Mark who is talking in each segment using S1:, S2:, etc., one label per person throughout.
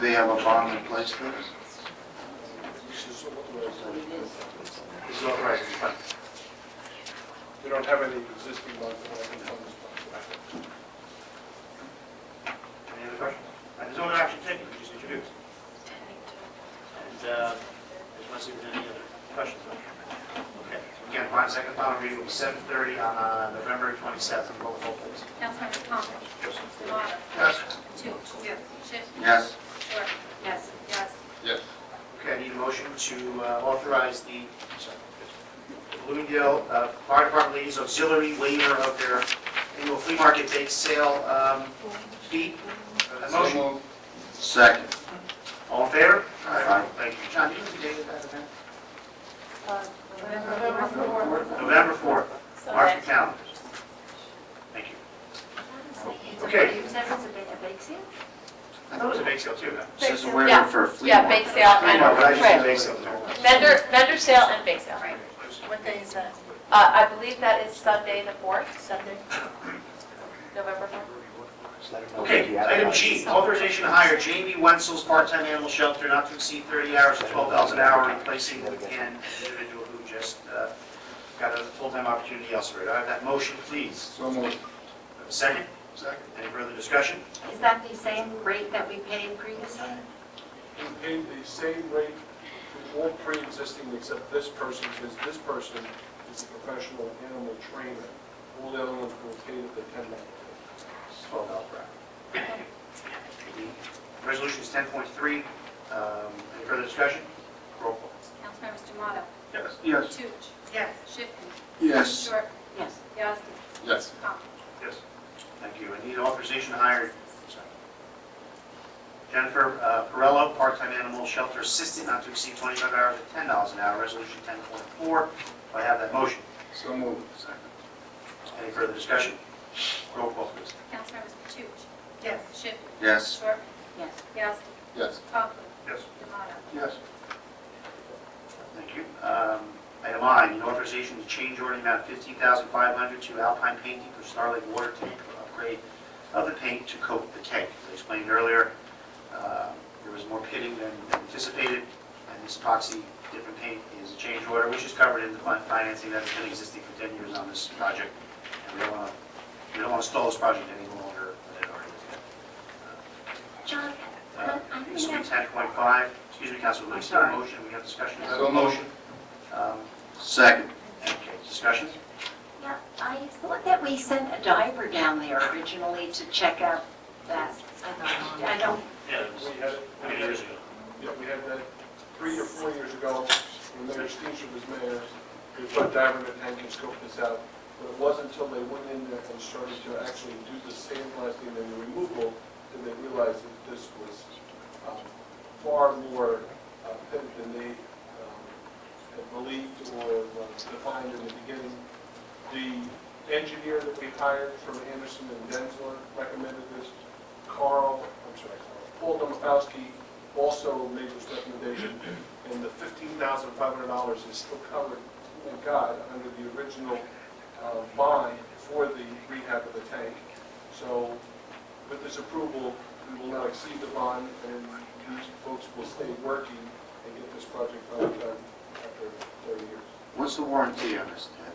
S1: they have a bond in place for this?
S2: It's not right. We don't have any existing ones that I can tell us about.
S3: Any other questions? All right, There's no action taken, we just introduced. And uh, I just want to see if there's any other questions. on it. Okay, so again, upon second final reading, will be 7:30 on uh, November 27th. Roll call, please.
S4: Councilmember Conklin.
S3: Yes.
S4: Demotta.
S1: Yes.
S4: Toots. Yes. Schiff.
S1: Yes.
S4: Short. Yes. Yes.
S1: Yes.
S3: Okay, I need a motion to uh, authorize the sorry, Bloomingdale uh, Fire Department Ladies Auxiliary waiver of their annual flea market bake sale um, fee. A Motion,
S1: Second.
S3: all in favor?
S1: Aye.
S3: Thank you. John, do you have the date of that event?
S4: Uh, November fourth.
S3: November 4th.
S4: So
S3: Mark your
S4: that's.
S3: calendars. Thank you. Okay.
S5: You said it's a big, a big seal?
S3: I thought it was a bake sale too, though.
S1: Says a
S4: Yeah.
S1: waiver for a flea
S4: Yeah, bake
S1: market.
S4: sale
S3: I know, but I just did
S4: and,
S3: bake sale too.
S4: vendor, vendor sale and bake sale.
S5: Right. What day is that?
S4: Uh, I believe that is Sunday the 4th, Sunday, November 4th.
S3: Okay, item G, authorization to hire Jamie Wenzel's part-time animal shelter not to exceed 30 hours or 12 dollars an hour, replacing an individual who just uh, got a full-time opportunity elsewhere. Do I have that motion, please?
S1: So moved.
S3: Do I have a Second? Second. Any further discussion?
S5: Is that the same rate that we paid previously?
S2: We paid the same rate to all pre-existing except this person, because this person is a professional animal trainer. All the other ones were paid at the ten dollar.
S3: It's 12 dollars per hour. Resolution is 10.3. Um, Any further discussion? Roll call.
S4: Councilmembers Demotta.
S3: Yes.
S1: Yes.
S4: Toots.
S5: Yes.
S4: Schiff.
S1: Yes.
S4: Short.
S5: Yes.
S4: Yasi.
S1: Yes.
S4: Conklin.
S3: Yes. Thank you. I need authorization to hire sorry. Jennifer uh, Perello, part-time animal shelter assistant, not to exceed 25 hours at $10 an hour, resolution 10.4. Do I have that motion?
S1: So moved.
S3: Any further discussion? Roll call, please.
S4: Councilmembers Toots.
S5: Yes.
S4: Schiff.
S1: Yes.
S4: Short.
S5: Yes.
S4: Yasi.
S1: Yes.
S4: Conklin.
S3: Yes.
S4: Demotta.
S1: Yes.
S3: Thank you. Um, Item I, need authorization to change order amount 15500 to Alpine Painting for Starlight Water Tank for upgrade of the paint to coat the tank. As I explained earlier, uh, there was more pitting than anticipated, and this epoxy different paint is a change order, which is covered in the fin- financing that's been existing for 10 years on this project. And we don't want to, we don't want to stall this project any longer than it already is.
S5: John,
S3: Uh,
S5: I I
S3: This
S5: think
S3: will be
S5: that's
S3: 10.5, excuse me, Councilman, we
S5: I'm
S3: still have a
S5: sorry.
S3: motion, we have discussion.
S1: So motion.
S3: Um,
S1: Second.
S3: Okay, discussion?
S5: yeah, I thought that we sent a diver down there originally to check out that. I don't,
S3: Yeah.
S2: We had, we had, yeah, we had that three or four years ago, when Mayor Steenstrup was mayor, we put diver in the tank and scoped this out. But it wasn't until they went in there and started to actually do the sandblasting and the removal, that they realized that this was um, far more uh, pimped than they um, had believed or uh, defined in the beginning. The engineer that we hired from Anderson and Denzler recommended this. Carl, I'm sorry, Carl, Paul Domofowski also made this recommendation, and the $15,500 is still covered, thank God, under the original uh, bond for the rehab of the tank. So with this approval, we will not exceed the bond, and these folks will stay working and get this project done after 30 years.
S1: What's the warranty on this, Ted?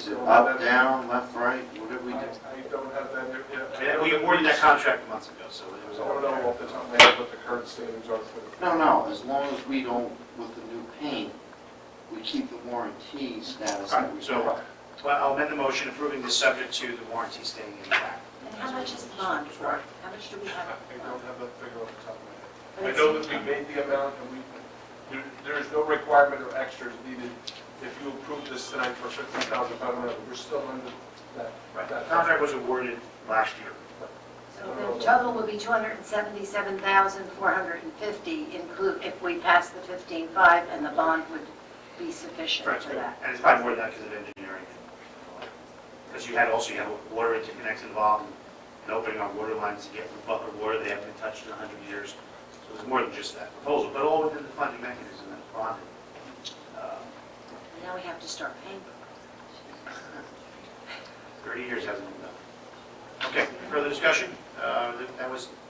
S1: Is it
S2: I don't have
S1: up,
S2: that-
S1: down, left, right? What did we
S2: I
S1: do?
S2: I don't have that yet.
S3: Yeah, We awarded that contract months ago, so it
S2: I
S3: was all
S2: don't know off the top of my head what the current standards are for the
S1: No, no, as long as we don't, with the new paint, we keep the warranty status
S3: All
S1: that
S3: right,
S1: we
S3: so-
S1: got.
S3: Well, I'll amend the motion approving this subject to the warranty staying intact.
S5: and how much is the bond for? How much do we
S2: I
S5: have?
S2: don't have that figure off the top of my head. I know that we made the amount, and we, there, there is no requirement or extras needed. If you approve this tonight for fifty thousand pound amount, we're still under that.
S3: Right, the
S2: that-
S3: contract was awarded last year.
S5: So the total will be 277,450 include, if we pass the 15.5, and the bond would be sufficient for that.
S3: And it's probably more than that because of engineering. Because you had also, you had water interconnects involved, and opening our water lines to get Butler water, they haven't been touched in 100 years. So it's more than just that proposal, but all within the funding mechanism that's bonded. Uh,
S5: Now we have to start paying.
S3: 30 years hasn't been done. Okay, further discussion? Uh, That was